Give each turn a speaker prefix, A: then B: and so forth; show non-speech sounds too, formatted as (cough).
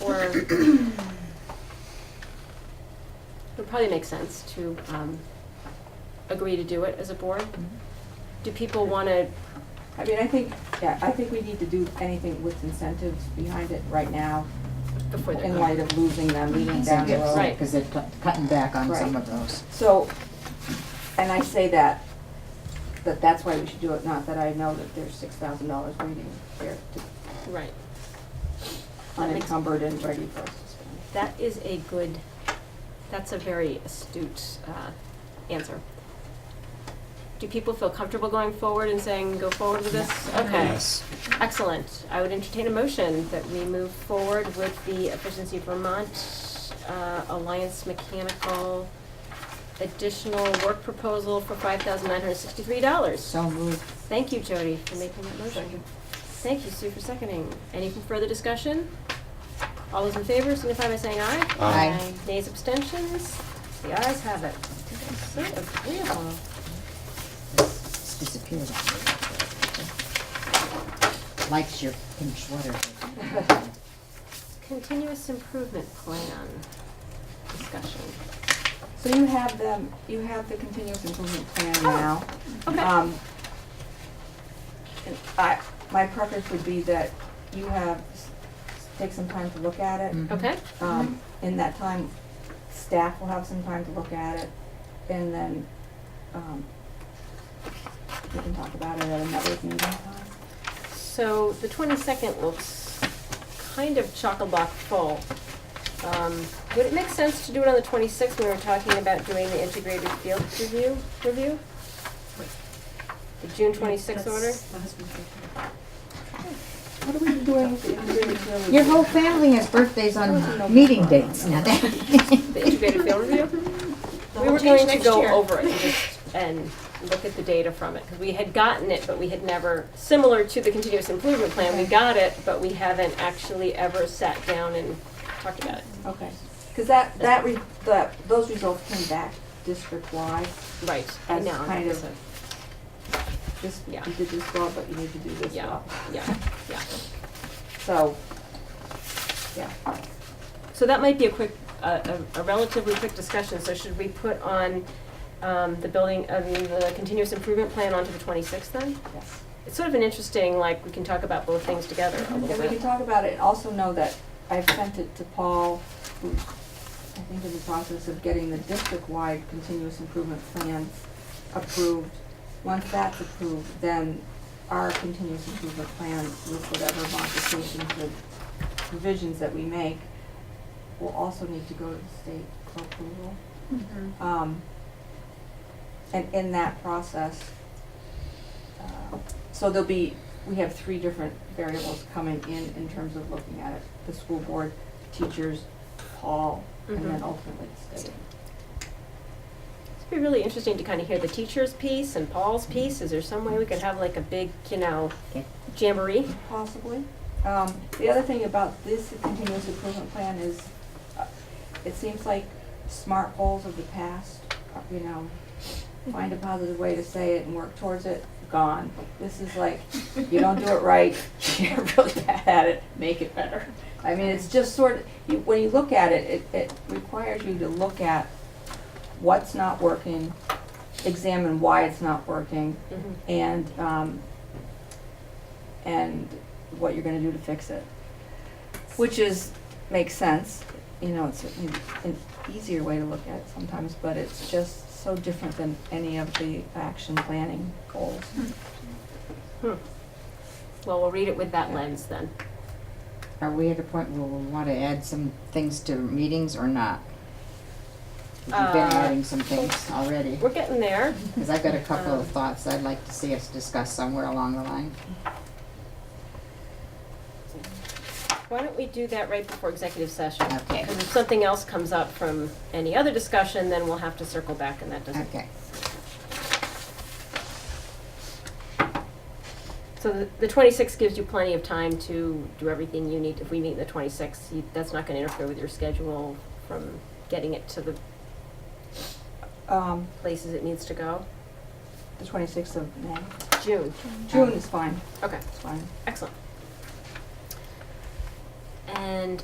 A: or would probably make sense to um, agree to do it as a board. Do people want to,
B: I mean, I think, yeah, I think we need to do anything with incentives behind it right now,
A: before they're
B: in
A: gone?
B: light of losing them down the road.
A: Right.
C: Because they're cut- cutting back on some
B: Right.
C: of those.
B: So, and I say that, that that's why we should do it, not that I know that there's six thousand dollars waiting there to-
A: Right. That makes-
B: unencumbered and ready for us to spend.
A: That is a good, that's a very astute uh, answer. Do people feel comfortable going forward and saying, go forward with this? Okay, excellent. I would entertain a motion that we move forward with the Efficiency Vermont uh, Alliance Mechanical additional work proposal for five thousand nine hundred sixty-three dollars.
C: So moved.
A: Thank you, Jody, for making that motion. Thank you, Sue, for seconding. Any further discussion? All those in favor signify by saying aye.
C: Aye.
A: Nays, abstentions? The ayes have it. So agreeable.
C: It's disappeared on me. Likes your
A: (laughs)
C: pink sweater.
A: Continuous improvement plan discussion.
B: So you have them, you have the continuous improvement plan now.
A: Oh, Okay,
B: Um, and I, my preference would be that you have, s- take some time to look at it.
C: Mhm.
A: okay,
B: Um, in that time, staff will have some time to look at it, and then, um, we can talk about it at another meeting.
A: so the twenty-second looks kind of chock-a-block full. Um, Would it make sense to do it on the twenty-sixth when we were talking about doing the integrated field review, review? The June twenty-sixth order?
B: What are we doing with the integrated field?
C: Your whole family has birthdays on meeting dates. Now (laughs) that-
A: The integrated field
B: (laughs)
A: review? We were going to go over it and just, and look at the data from it, because we had gotten it, but we had never, similar to the continuous improvement plan, we got it, but we haven't actually ever sat down and talked about it.
B: Okay, cause that, that, re- the, those results came back district-wide,
A: Right. I
B: As
A: know, I
B: kind
A: know,
B: of-
A: so-
B: this, you
A: Yeah.
B: did this well, but you need to do this
A: Yeah,
B: well,
A: yeah, yeah.
B: (laughs) so, yeah.
A: So that might be a quick, a a- a relatively quick discussion, so should we put on um, the building, I mean, the continuous improvement plan onto the twenty-sixth then?
B: Yes.
A: It's sort of an interesting, like, we can talk about both things together a
B: And we
A: little
B: can
A: bit.
B: talk about it, and also know that I've sent it to Paul, who I think is in the process of getting the district-wide continuous improvement plan approved. Once that's approved, then our continuous improvement plan with whatever modifications or provisions that we make will also need to go to the state for approval. Um, and in that process, uh, so there'll be, we have three different variables coming in, in terms of looking at it. The school board, teachers, Paul, and then
A: Mhm.
B: ultimately the state.
A: It'd be really interesting to kind of hear the teacher's piece and Paul's piece. Is there some way we could have like a big, you know,
C: Okay.
A: jamboree?
B: Possibly. Um, the other thing about this continuous improvement plan is, uh, it seems like smart goals of the past, uh, you know, find a positive way to say it and work towards it, gone. This is like, you don't do it right, (laughs) you're really bad at it, make it better. I mean, it's just sort of, you, when you look at it, it, it requires you to look at what's not working, examine why it's not working,
A: Mhm.
B: and, um, and what you're gonna do to fix it. Which is, makes sense, you know, it's certainly an easier way to look at it sometimes, but it's just so different than any of the action planning goals.
A: Well, we'll read it with that lens then.
C: Are we at a point where we want to add some things to meetings or not? We've been
A: Uh,
C: adding some things already,
A: We're getting there.
C: because I've got a couple
A: Um,
C: of thoughts I'd like to see us discuss somewhere along the line.
A: Why don't we do that right before executive session?
C: Okay.
A: Because if something else comes up from any other discussion, then we'll have to circle back and that doesn't.
C: Okay,
A: So the- the twenty-sixth gives you plenty of time to do everything you need. If we meet the twenty-sixth, that's not going to interfere with your schedule from getting it to the
B: Um,
A: places it needs to go.
B: the twenty-sixth of May,
A: June,
B: June is fine,
A: okay.
B: it's fine.
A: Excellent. And